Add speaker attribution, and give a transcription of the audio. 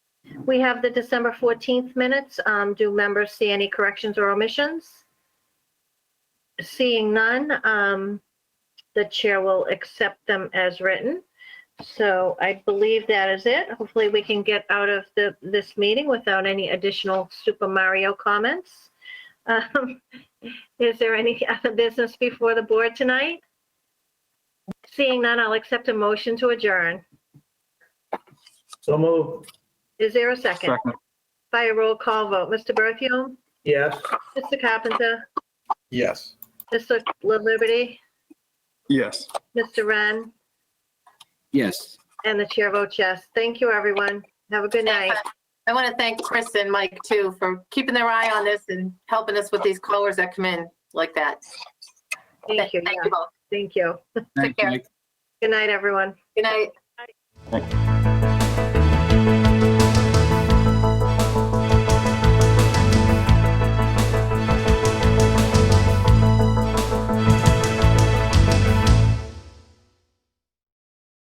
Speaker 1: we have the December 14th minutes. Um, Do members see any corrections or omissions? Seeing none, um, the chair will accept them as written. So I believe that is it. Hopefully, we can get out of the, this meeting without any additional Super Mario comments. Um, Is there any other business before the board tonight? Seeing none, I'll accept a motion to adjourn.
Speaker 2: So move.
Speaker 1: Is there a second?
Speaker 3: Second,
Speaker 1: By a roll call vote, Mr. Berthium,
Speaker 2: Yes.
Speaker 1: Mr. Carpenter,
Speaker 4: Yes.
Speaker 1: Mr. La Liberty,
Speaker 3: yes.
Speaker 1: Mr. Ren,
Speaker 5: Yes.
Speaker 1: and the chair votes yes. Thank you, everyone. Have a good night.
Speaker 6: I want to thank Chris and Mike too for keeping their eye on this and helping us with these callers that come in like that.
Speaker 1: Thank you.
Speaker 6: Thank
Speaker 1: Yeah,
Speaker 6: you both.
Speaker 1: Thank you.
Speaker 5: Thanks,
Speaker 6: care.
Speaker 5: Mike.
Speaker 1: Good night, everyone.
Speaker 6: Good night.